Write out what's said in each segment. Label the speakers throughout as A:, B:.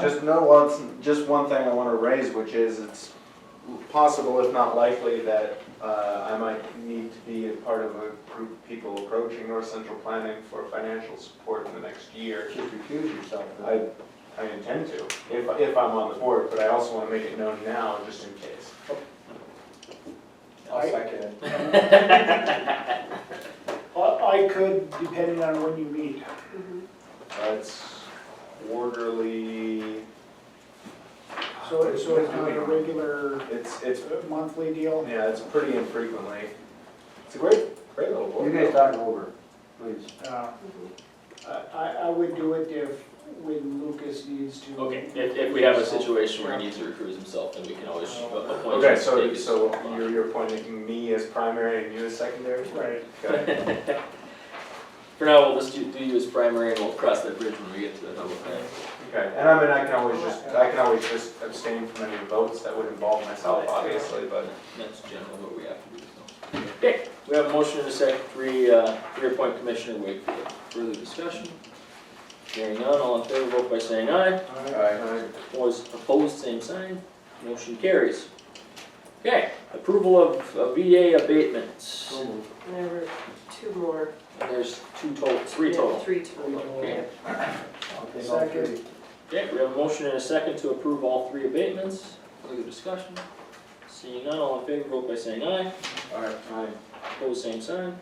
A: Just, no, well, it's just one thing I want to raise, which is it's possible, if not likely, that uh, I might need to be a part of a group of people approaching North Central Planning for financial support in the next year.
B: Should recuse yourself.
A: I, I intend to, if, if I'm on the board, but I also want to make it known now, just in case.
B: I'll second it.
C: I I could, depending on when you meet.
A: Uh, It's quarterly,
C: So it's, so it's not a regular
A: it's, it's,
C: uh, monthly deal?
A: yeah, it's pretty infrequently. It's a great, great little
B: You
A: board.
B: guys
A: though.
B: talk it over, please.
C: Uh, I, Uh, I I would do it if, when Lucas needs to.
D: Okay, if, if we have a situation where he needs to recruit himself, then we can always a- appoint him
A: Okay,
D: to take
A: so,
D: his
A: so
D: spot.
A: you're, you're appointing me as primary and you as secondary?
C: Right.
A: Got it.
D: For now, we'll just do, do you as primary and we'll cross that bridge when we get to the double pay.
A: Okay, and I mean, I can always just, I can always just abstain from any votes that would involve myself, obviously, but.
D: That's generally what we have to do, so. Okay, we have a motion in a second, re, uh, reappoint Commissioner Wakefield. Further discussion? Hearing none, all in favor, vote by saying aye. Opposed, opposed, same sign. Motion carries. Okay, approval of uh, VA abatements.
B: So moved.
E: And There were two more.
D: And There's two total, three
E: Yeah,
D: total.
E: Three total.
D: Okay.
B: I'll take all three.
C: Second.
D: Okay, we have a motion and a second to approve all three abatements. Further discussion? Seeing none, all in favor, vote by saying aye.
B: Aye.
D: Opposed, same sign.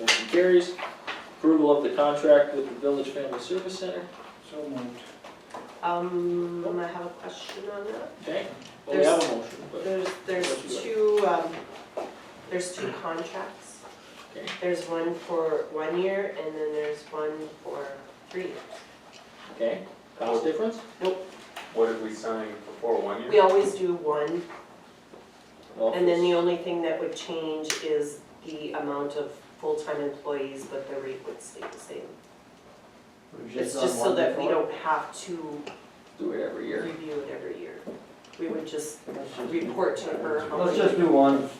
D: Motion carries. Approval of the contract with the Village Family Service Center.
C: So moved.
E: Um, I have a question on that.
D: Okay, well, we have a motion, but,
E: There's, there's two, um, there's two contracts.
D: okay.
E: There's one for one year and then there's one for three years.
D: Okay, cost difference?
A: What did we sign before, one year?
E: We always do one
D: Well,
E: and then the only thing that would change is the amount of full-time employees, but the rate would stay the same.
B: We've
E: It's
B: done
E: just so
B: one
E: that we
B: before.
E: don't have to
D: Do it every year.
E: review it every year. We would just
B: Let's just-
E: report to her how
B: Let's
E: many-
B: just do one.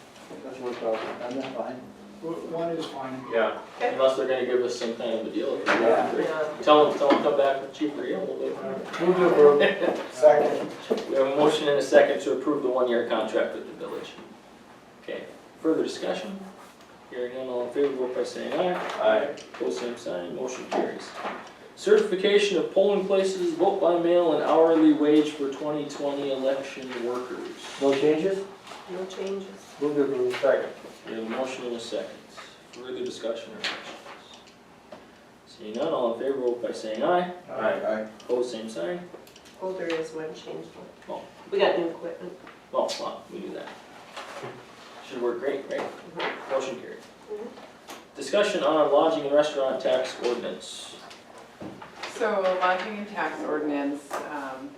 B: That's what we're talking, I'm not fine.
C: W- One is fine.
A: Yeah,
D: Unless they're gonna give us some kind of a deal.
E: Yeah.
D: Tell them, tell them come back with cheaper deal, we'll do it.
B: Move to approve.
C: Second.
D: We have a motion and a second to approve the one-year contract with the village. Okay, further discussion? Hearing none, all in favor, vote by saying aye.
A: I,
D: Opposed, same sign, motion carries. Certification of polling places, vote by mail, and hourly wage for 2020 election workers.
B: No changes?
E: No changes.
B: Move to approve.
A: second.
D: We have a motion and a second. Further discussion or questions? Seeing none, all in favor, vote by saying aye.
A: Aye.
D: Opposed, same sign.
E: Oh, there is one change. though.
D: Oh.
E: We got new equipment.
D: Well, well, we do that. Should work great, right? Motion carried.
E: Mhm.
F: Mm-hmm.
D: Discussion on lodging and restaurant tax ordinance.
F: So lodging and tax ordinance, um,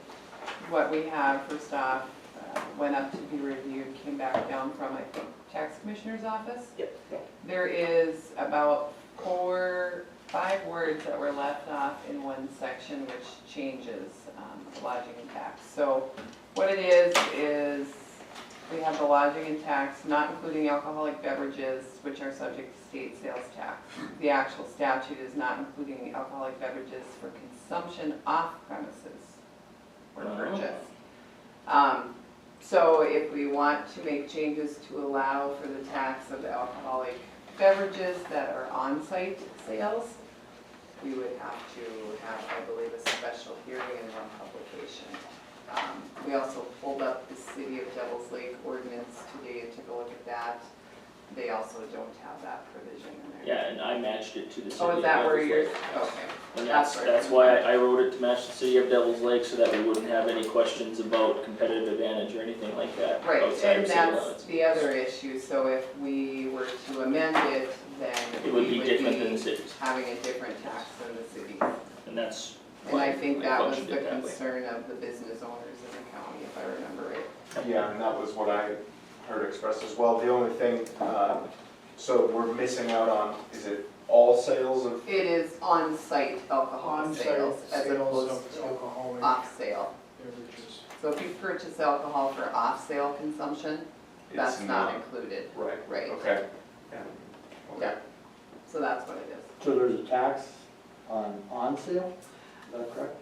F: what we have, first off, uh, went up to be reviewed, came back down from, I think, tax commissioner's office.
E: Yep.
F: There is about four, five words that were left off in one section, which changes um, the lodging and tax. So what it is, is we have the lodging and tax, not including alcoholic beverages, which are subject to state sales tax. The actual statute is not including alcoholic beverages for consumption off premises or
D: Oh.
F: purchase. Um, So if we want to make changes to allow for the tax of the alcoholic beverages that are on-site sales, we would have to have, I believe, a special hearing and one publication. Um, We also pulled up the city of Devil's Lake ordinance today and took a look at that. They also don't have that provision in there.
D: Yeah, and I matched it to the city.
F: Oh,
D: of
F: is that where
D: Devil's
F: you're,
D: Lake.
F: okay.
D: And that's,
F: that's where-
D: that's why I I wrote it to match the city of Devil's Lake, so that we wouldn't have any questions about competitive advantage or anything like that
F: Right,
D: outside of
F: and
D: city
F: that's
D: limits.
F: the other issue, so if we were to amend it, then we
D: It would be different than the cities,
F: having a different tax than the city.
D: and that's
F: And
D: why
F: I
D: we
F: think that was
D: functioned
F: the
D: it that way.
F: concern of the business owners in the county, if I remember right.
A: Yeah, and that was what I heard expressed as well. The only thing, uh, so we're missing out on, is it all sales of,
F: It is on-site alcohol
C: On-site
F: sales as
C: sales
F: opposed
C: of
F: to
C: alcoholic
F: off-sale.
C: beverages.
F: So if you purchase alcohol for off-sale consumption,
A: it's
F: that's not
A: not,
F: included,
A: right,
F: right?
A: okay. Yeah. Okay.
F: Yeah. So that's what it is.
B: So there's a tax on on sale, is that correct?